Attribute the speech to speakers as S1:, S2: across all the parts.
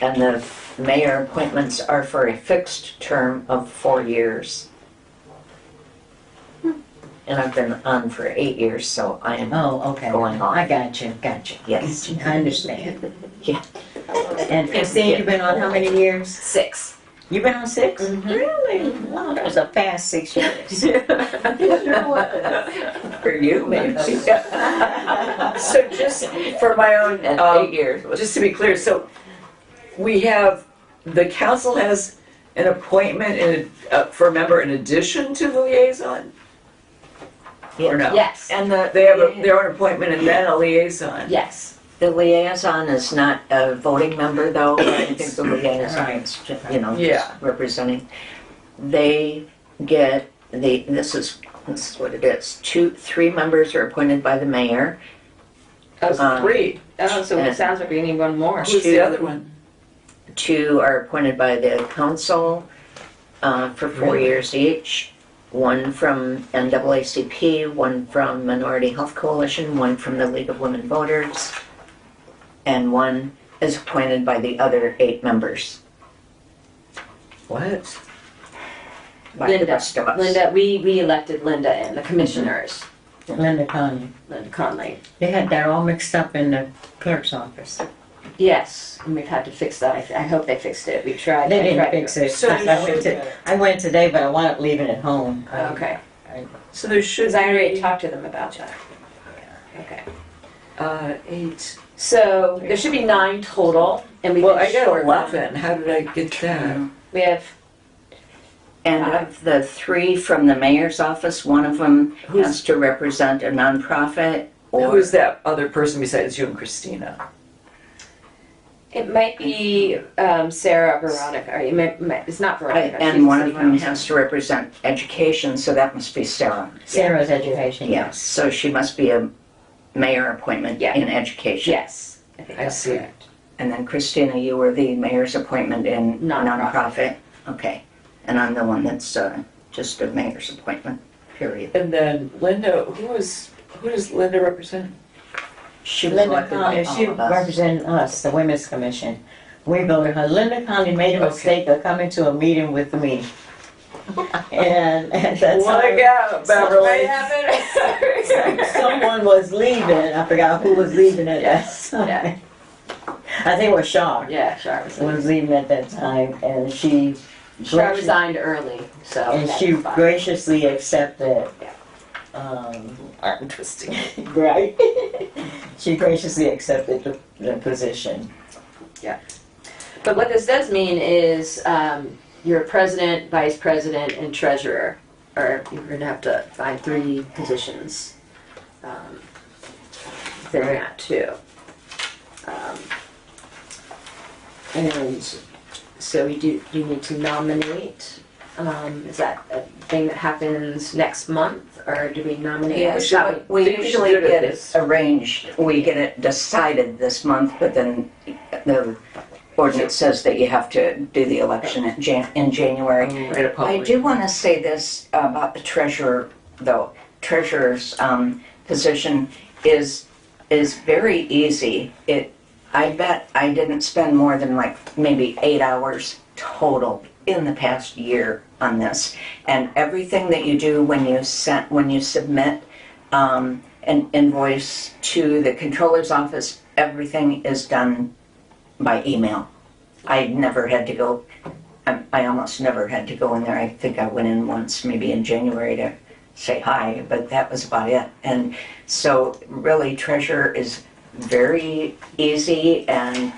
S1: and the mayor appointments are for a fixed term of four years. And I've been on for eight years, so I am,
S2: Oh, okay.
S1: Going on.
S2: I got you, got you.
S1: yes,
S2: I understand.
S1: Yeah.
S2: And Christine, you've been on how many years?
S3: Six.
S2: You've been on 6
S1: Mhm.
S2: Really? Wow, that was a fast six years.
S1: for you, maybe.
S3: So just for my own,
S1: And eight
S3: um,
S1: years was
S3: just to be clear, so we have, the council has an appointment in, uh, for a member in addition to the liaison? Or no?
S1: Yes, and the.
S3: They have a- their own appointment and then a liaison?
S1: Yes, the liaison is not a voting member though, I think the liaison is, ju- you know, just
S3: Yeah.
S1: representing. They get, the. this is, this is what it is, two, three members are appointed by the mayor.
S4: Oh, so-
S1: Uh,
S3: Three,
S4: oh, so it sounds like we need one more.
S3: who's the other one?
S1: Two are appointed by the council uh, for four
S3: Really?
S1: years each. One from NAACP, one from Minority Health Coalition, one from the League of Women Voters, and one is appointed by the other eight members,
S3: What?
S1: by the
S4: Linda.
S1: rest of us.
S4: Linda, we, we elected Linda and the commissioners,
S2: Linda Conley.
S4: Linda Conley.
S2: They had that all mixed up in the clerk's office.
S4: Yes, and we've had to fix that. I, th- I hope they fixed it. We tried.
S2: They
S4: I
S2: didn't
S4: tried
S2: fix
S4: to-
S2: it.
S3: So you
S2: I went
S3: should-
S2: to, I went today, but I wound up leaving it home. I-
S4: Okay,
S3: So there
S4: because
S3: should
S4: I already
S3: be,
S4: talked to them about that. Okay,
S3: uh, eight.
S4: so there should be nine total, and we've
S3: Well,
S4: been
S3: I got
S4: short. um, one.
S3: eleven, how did I get that?
S4: We have,
S1: And of the three from the mayor's office, one of them
S3: Who's-
S1: has to represent a nonprofit
S3: Who
S1: or
S3: is that other person besides you and Christina?
S4: it might be um, Sarah Veronica, or it might- might- it's not Veronica. she's
S1: and one of
S4: someone
S1: them
S4: else.
S1: has to represent education, so that must be Sarah.
S2: Sarah's education.
S1: Yes, so she must be a mayor appointment
S4: Yeah.
S1: in education.
S4: Yes, I think
S3: I
S4: that's
S3: see.
S4: correct.
S1: And then Christina, you were the mayor's appointment in
S4: Nonprofit.
S1: nonprofit. Okay, and I'm the one that's uh, just a mayor's appointment, period.
S3: And then Linda, who is, who does Linda represent?
S1: She was
S2: Linda
S1: elected by
S2: Conley, she
S1: all of us.
S2: represented us, the Women's Commission. We voted her. Linda Conley made a
S3: Okay.
S2: mistake of coming to a meeting with me. And at that
S3: Wanna
S2: time,
S3: go,
S4: What
S3: Beverly?
S4: happened?
S2: someone was leaving. I forgot who was leaving at that
S4: Yeah.
S2: time. I think it was Shaw
S4: Yeah, Shar was,
S2: was leaving at that time and she.
S4: Shar
S2: graciously-
S4: resigned early, so.
S2: And
S4: that's
S2: she
S4: fine.
S2: graciously accepted.
S4: Yeah.
S2: Um,
S3: I'm twisting.
S2: right? She graciously accepted the, the position.
S4: But what this does mean is um, your president, vice president, and treasurer are, you're gonna have to find three positions. um, Within that too. Um, And so we do, you need to nominate, um, is that a thing that happens next month or do we nominate?
S1: Yeah,
S4: That
S1: so we
S3: Think we should
S1: usually
S3: do it
S1: get it
S3: this-
S1: arranged, we get it decided this month, but then the ordinance says that you have to do the election in Jan, in January.
S3: Right, a public.
S1: I do want to say this about the treasurer, though. Treasurer's um, position is, is very easy. It, I bet I didn't spend more than like maybe eight hours total in the past year on this. And everything that you do when you sent, when you submit um, an invoice to the controller's office, everything is done by email. I never had to go I, I almost never had to go in there. I think I went in once, maybe in January, to say hi, but that was about it. And so, really, treasure is very easy. And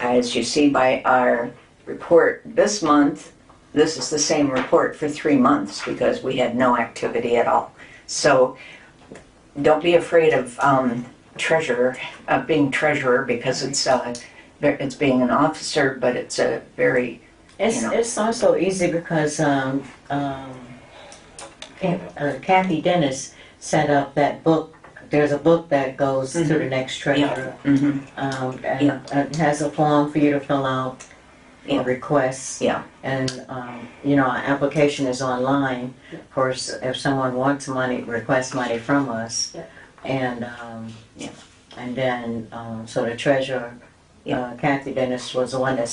S1: as you see by our report this month, this is the same report for three months because we had no activity at all. So, don't be afraid of um, treasurer, of being treasurer, because it's uh, it's being an officer, but it's a very
S2: It's,
S1: You know.
S2: it's also easy because um, um, Ca- uh, Kathy Dennis set up that book. There's a book that goes to the next treasurer
S1: mhm.
S2: um, and
S1: Mm-hmm. Yeah.
S2: and has a form for you to fill out for
S1: Yeah.
S2: requests.
S1: Yeah.
S2: And um, you know, our application is online. Of course, if someone wants money, requests money from us,
S4: Yeah.
S2: and um,
S1: Yeah.
S2: and then um, so the treasurer,
S1: Yeah.
S2: uh, Kathy Dennis was the one that